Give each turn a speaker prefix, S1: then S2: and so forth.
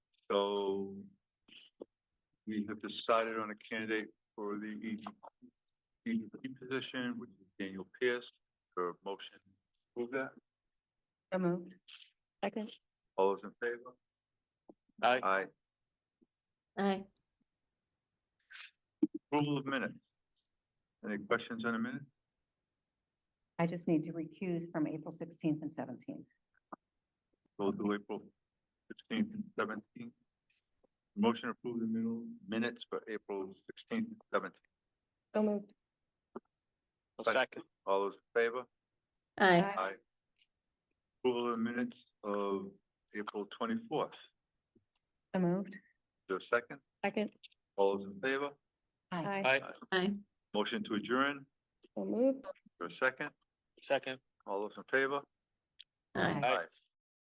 S1: So we have decided on a candidate for the E- EDP position, which is Daniel Pierce, for motion. Move that.
S2: So moved. Second.
S1: All those in favor?
S3: Aye.
S1: Aye.
S2: Aye.
S1: Approval of minutes. Any questions on the minute?
S2: I just need to recuse from April sixteenth and seventeenth.
S1: We'll do April sixteenth and seventeenth. Motion to approve the minu- minutes for April sixteenth and seventeenth.
S2: So moved.
S3: I'll
S1: Second.
S3: second.
S1: All those in favor?
S4: Aye.
S1: Aye. Approval of the minutes of April twenty-fourth.
S2: So moved.
S1: Do a second?
S4: Second.
S1: All those in favor?
S2: Aye.
S3: Aye,
S4: Aye.
S1: Motion to adjourn,
S4: So moved.
S1: for a second?
S3: second.
S1: All those in favor?
S4: Aye.
S3: Aye.